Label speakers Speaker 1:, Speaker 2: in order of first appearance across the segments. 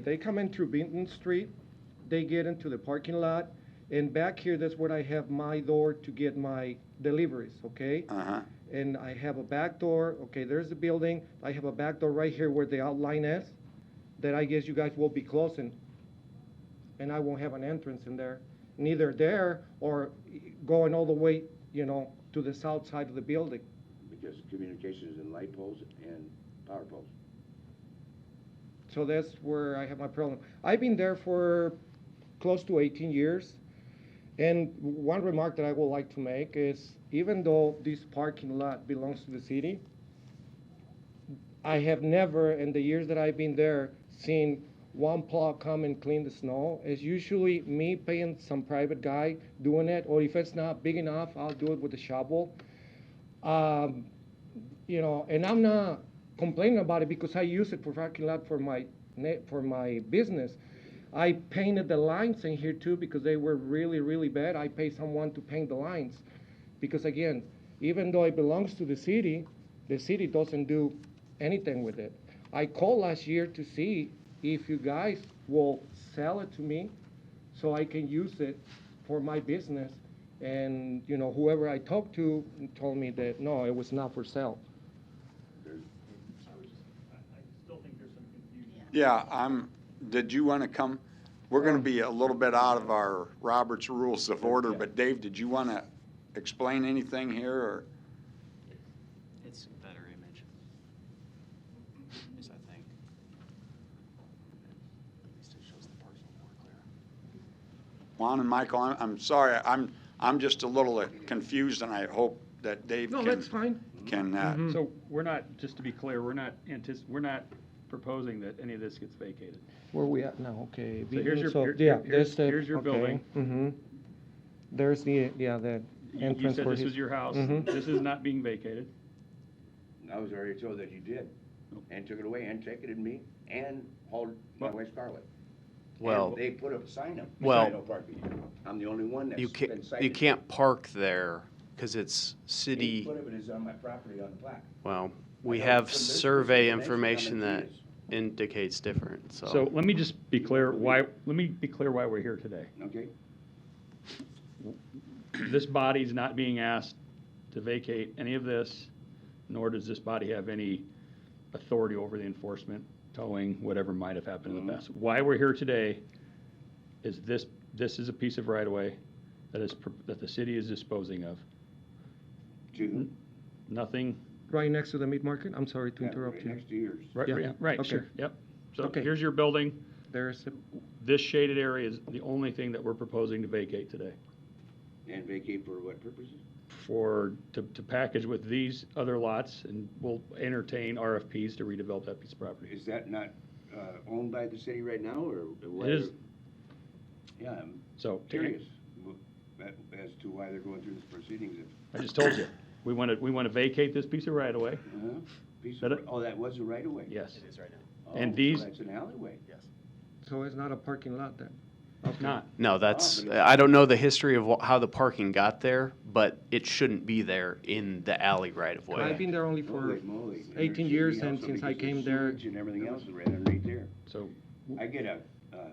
Speaker 1: They come in through Benton Street, they get into the parking lot, and back here, that's where I have my door to get my deliveries, okay?
Speaker 2: Uh-huh.
Speaker 1: And I have a back door, okay, there's the building, I have a back door right here where the outline is, that I guess you guys will be closing. And I won't have an entrance in there, neither there or going all the way, you know, to the south side of the building.
Speaker 2: Because communications and light poles and power poles.
Speaker 1: So that's where I have my problem. I've been there for close to 18 years. And one remark that I would like to make is even though this parking lot belongs to the city, I have never, in the years that I've been there, seen one plow come and clean the snow. It's usually me paying some private guy doing it, or if it's not big enough, I'll do it with a shovel. Um, you know, and I'm not complaining about it because I use it for parking lot for my ne- for my business. I painted the lines in here too because they were really really bad. I paid someone to paint the lines because again, even though it belongs to the city, the city doesn't do anything with it. I called last year to see if you guys will sell it to me so I can use it for my business. And you know, whoever I talked to told me that no, it was not for sale.
Speaker 3: I was just, I, I still think there's some confusion.
Speaker 4: Yeah, I'm, did you want to come? We're going to be a little bit out of our Roberts Rules of Order, but Dave, did you want to explain anything here, or?
Speaker 5: It's a better image. Is I think. At least it shows the parcel more clear.
Speaker 4: Juan and Michael, I'm, I'm sorry, I'm, I'm just a little confused, and I hope that Dave
Speaker 1: No,
Speaker 4: can.
Speaker 1: that's fine.
Speaker 4: Can, uh,
Speaker 1: Mhm.
Speaker 3: So we're not, just to be clear, we're not antici, we're not proposing that any of this gets vacated.
Speaker 1: Where we at now? Okay.
Speaker 3: So here's your-
Speaker 1: so-
Speaker 3: here-
Speaker 1: yeah,
Speaker 3: here's-
Speaker 1: that's the-
Speaker 3: here's your
Speaker 1: okay.
Speaker 3: building.
Speaker 1: Mhm. There's the yeah the
Speaker 3: You- You
Speaker 1: entrance
Speaker 3: said
Speaker 1: for
Speaker 3: this
Speaker 1: his-
Speaker 3: was your house.
Speaker 1: Mhm.
Speaker 3: This is not being vacated.
Speaker 2: I was already told that you did, and took it away, and ticketed me, and hauled my
Speaker 3: Well-
Speaker 2: wife Scarlett.
Speaker 5: Well-
Speaker 2: And they put up a sign up,
Speaker 5: Well-
Speaker 2: sign no parking. I'm the only one that's
Speaker 5: You
Speaker 2: been
Speaker 5: can't,
Speaker 2: cited.
Speaker 5: you can't park there because it's
Speaker 2: Eight
Speaker 5: city,
Speaker 2: foot of it is on my property on the plaque.
Speaker 5: well,
Speaker 2: I
Speaker 5: we
Speaker 2: know
Speaker 5: have
Speaker 2: from this
Speaker 5: survey
Speaker 2: information
Speaker 5: information
Speaker 2: how much
Speaker 5: that
Speaker 2: it is.
Speaker 5: indicates different,
Speaker 3: So
Speaker 5: so.
Speaker 3: let me just be clear why, let me be clear why we're here today.
Speaker 2: Okay,
Speaker 3: This body's not being asked to vacate any of this, nor does this body have any authority over the enforcement, towing, whatever might have happened in the
Speaker 2: Mhm.
Speaker 3: past. Why we're here today is this, this is a piece of right-of-way that is, pro- that the city is disposing of.
Speaker 5: Hmm?
Speaker 2: two.
Speaker 3: Nothing,
Speaker 1: right next to the meat market. I'm sorry to interrupt you.
Speaker 2: Next to yours.
Speaker 3: right,
Speaker 1: Yeah.
Speaker 3: right, right,
Speaker 1: Okay.
Speaker 3: sure, yep. So
Speaker 1: Okay.
Speaker 3: here's your building.
Speaker 1: There's a,
Speaker 3: This shaded area is the only thing that we're proposing to vacate today.
Speaker 2: And vacate for what purposes?
Speaker 3: for, to, to package with these other lots, and we'll entertain RFPs to redevelop that piece of property.
Speaker 2: Is that not, uh, owned by the city right now, or? what?
Speaker 3: It is,
Speaker 2: Yeah, I'm
Speaker 3: so,
Speaker 2: curious w- that- as to why they're going through this proceedings. if-
Speaker 3: I just told you, we want to, we want to vacate this piece of right-of-way,
Speaker 2: Uh-huh. Piece
Speaker 3: But
Speaker 2: of,
Speaker 3: it-
Speaker 2: oh, that was a right of way?
Speaker 3: yes,
Speaker 5: is right now.
Speaker 2: Oh,
Speaker 3: and
Speaker 2: so
Speaker 3: these-
Speaker 2: That's an alleyway.
Speaker 1: so it's not a parking lot then.
Speaker 3: if not.
Speaker 5: No, that's,
Speaker 2: Oh, but it's-
Speaker 5: I don't know the history of wh- how the parking got there, but it shouldn't be there in the alley right of
Speaker 1: I've
Speaker 5: way.
Speaker 1: been there only for
Speaker 2: Holy moly. And
Speaker 1: 18
Speaker 2: there's
Speaker 1: years
Speaker 2: something
Speaker 1: and
Speaker 2: else
Speaker 1: since I
Speaker 2: because
Speaker 1: came
Speaker 2: the
Speaker 1: there-
Speaker 2: sewage And everything else is right underneath there.
Speaker 3: So,
Speaker 2: I get a, uh,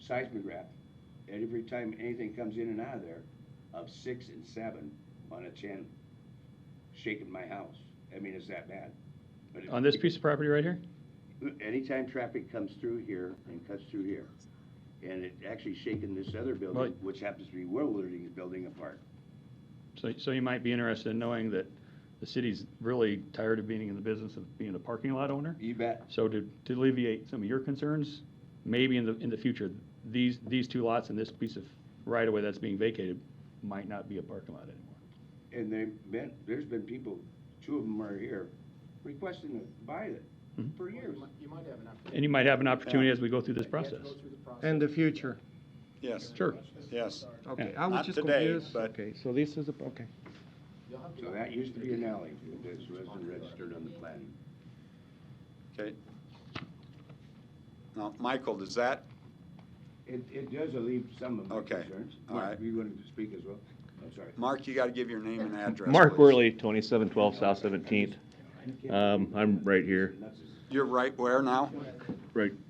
Speaker 2: seismograph, and every time anything comes in and out of there, of six and seven on a ten, shaking my house. I mean, it's that bad. But it-
Speaker 3: on this piece of property right here,
Speaker 2: Anytime traffic comes through here and cuts through here, and it actually shaking this other building,
Speaker 3: Right.
Speaker 2: which happens to be Willerding's building apart.
Speaker 3: so, so you might be interested in knowing that the city's really tired of being in the business of being a parking lot owner.
Speaker 2: You bet.
Speaker 3: So to, to alleviate some of your concerns, maybe in the, in the future, these, these two lots and this piece of right-of-way that's being vacated might not be a parking lot anymore.
Speaker 2: And they've been, there's been people, two of them are here, requesting to buy it
Speaker 3: Mhm.
Speaker 2: for years.
Speaker 3: And you might have an opportunity as we go through this process.
Speaker 1: And the future.
Speaker 4: yes,
Speaker 3: Sure.
Speaker 4: yes.
Speaker 1: Okay, I was
Speaker 4: Not
Speaker 1: just
Speaker 4: today,
Speaker 1: confused.
Speaker 4: but-
Speaker 1: Okay, so this is a, okay.
Speaker 2: So that used to be an alley, this wasn't registered on the plan.
Speaker 4: Okay. Now, Michael, does that,
Speaker 2: It, it does alleviate some of my
Speaker 4: Okay,
Speaker 2: concerns.
Speaker 4: all
Speaker 2: Mark,
Speaker 4: right.
Speaker 2: You wanted to speak as well? I'm sorry.
Speaker 4: Mark, you got to give your name and address.
Speaker 6: Mark
Speaker 4: please.
Speaker 6: Worley, twenty-seven twelve South Seventeenth. Um, I'm right here,
Speaker 2: Nuts is-
Speaker 4: You're right where now?
Speaker 6: right